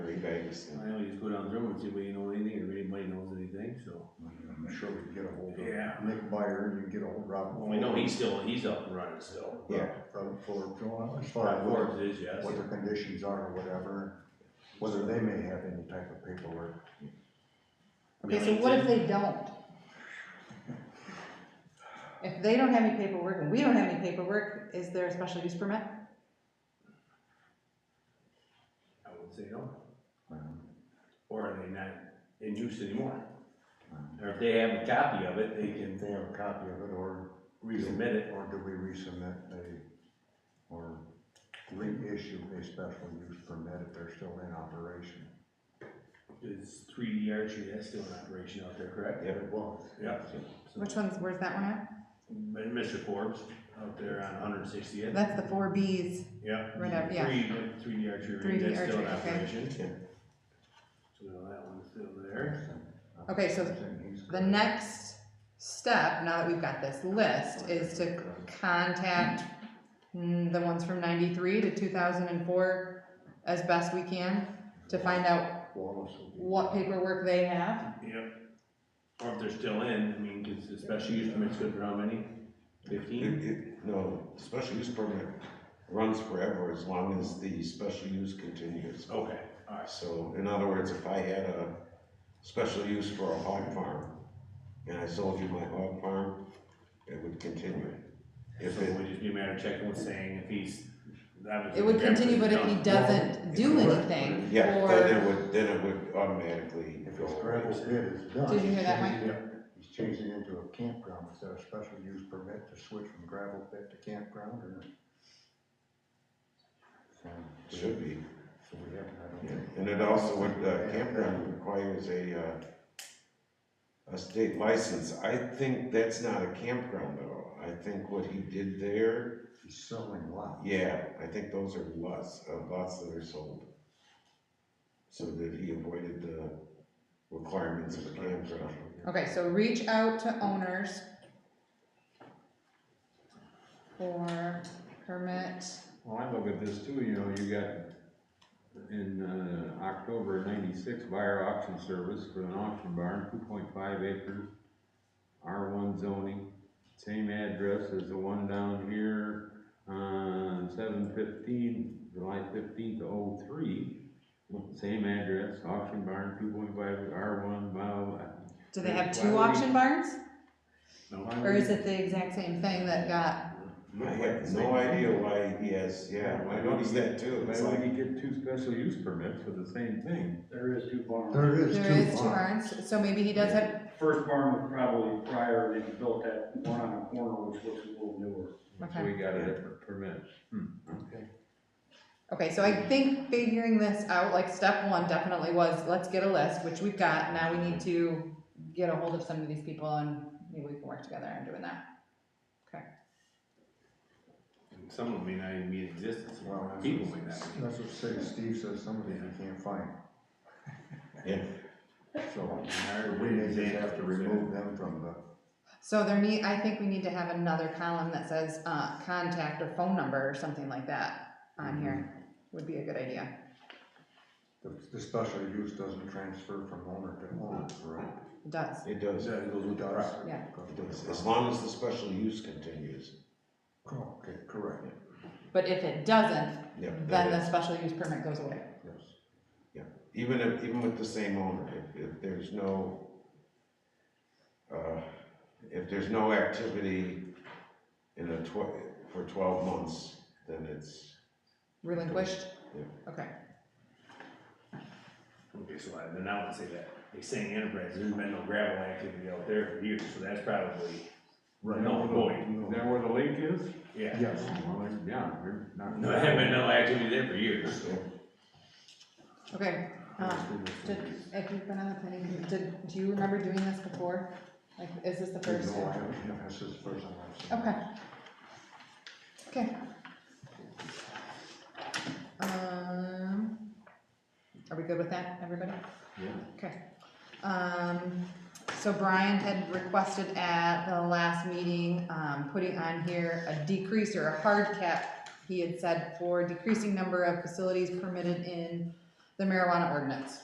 Vegas. I know, you just go down through and see if we know anything, or if anybody knows anything, so. I'm sure we can get a hold Yeah. of Nick Meyer, you can get a hold of Robert. Well, we know he's still, he's up and running still. Yeah, Robert Fuller, as far as what, Forbes is, yes. what the conditions are or whatever, whether they may have any type of paperwork. I mean, Okay, so what if they don't? If they don't have any paperwork and we don't have any paperwork, is there a special use permit? I would say no, um, or are they not in use anymore? um, Or if they have a copy of it, they If can they have a copy of it, or resubmit it. Or do we resubmit a, or reissue a special use permit if they're still in operation? It's three D archery, that's still in operation out there, correct? Yeah, it was. Yeah. So- Which one's, where's that one at? And Mr. Forbes out there on Hundred Sixtieth, That's the four Bs, yeah. right up, yeah. Three, three D archery, Three range, D that's still in archery, okay. operation. Yeah. So that one's still there. Okay, so the next step, now that we've got this list, is to contact mm, the ones from ninety-three to two thousand and four as best we can to find out Wallace will be- what paperwork they have. Yep. Or if they're still in, I mean, cause the special use permit's good for how many? It, Fifteen? it, no, the special use permit runs forever as long as the special use continues. Okay, alright. So in other words, if I had a special use for a hog farm and I sold you my hog farm, it would continue. If So it, we just be a matter of checking what's saying, if he's. that was- It would continue, but if he doesn't do anything, yeah, or- then it would, then it would automatically If go his away. gravel pit is done. Did you hear that, he's changing it- He's changing it into a campground, is that a special use permit to switch from gravel pit to campground or? So, we- Should be, So we haven't, I don't yeah. think. And it also would, uh, campground requires a, uh, a state license. I think that's not a campground though. I think what he did there He's selling lots. Yeah, I think those are lots, uh, lots that are sold. So that he avoided the requirements of the campground. Okay, so reach out to owners for permit, Well, I look at this too, you know, you got in, uh, October of ninety-six buyer auction service for an auction barn, two point five acres, R one zoning, same address as the one down here, on seven fifteen, July fifteenth, oh three. Same address, auction barn, two point five, R one, blah, do they have Why two would we- auction barns? No. blah. Or is it the exact same thing that got, I have no idea why he has, yeah, I noticed that too. Why It's would like, he get two special use permits for the same thing? There is two barns. There is two. there is two lots. barns, so maybe he does have, First barn was probably prior, they built that one on the corner, which looks a little newer. So okay. we got a different permit. Okay, so I think figuring this out, like step one definitely was, let's get a list, which we've got, now we need to get a hold of some of these people and maybe we can work together on doing that. Some of them may not even be in existence, Well, that's people what- may not. be. That's what Steve- Steve says, some of these you can't find. Yeah. So, Hard we may just have examples, to yeah. remove them from the, So there need, I think we need to have another column that says, uh, contact or phone number or something like that on here, would be a good idea. the, the special use doesn't transfer from owner to owner, right? It Does, it does, So it it goes with the property. Yeah. does, as long as the special use continues. Okay, correct, but if it doesn't, Yeah, then that the is, special use permit goes away. yes. even if, even with the same owner, if, if there's no, uh, if there's no activity in a tw- for twelve months, then it's, Relinquished? Yeah. Okay, Okay, so I, then I would say that, like saying enterprise, there's been no gravel activity out there for years, so that's probably, Right. No, void. Is that where the lake is? yeah. Yes, Well, there's- yeah, there's not. No, there haven't been no activity there for years. okay, uh, did, if you've been on the planning, commi- did, do you remember doing this before? Like, is this the first? no, I haven't, this is the first time I've seen. Okay. Okay. Um, are we good with that, everybody? Yeah. Okay. Um, so Brian had requested at the last meeting, um, putting on here a decrease or a hard cap. He had said for decreasing number of facilities permitted in the the marijuana ordinance.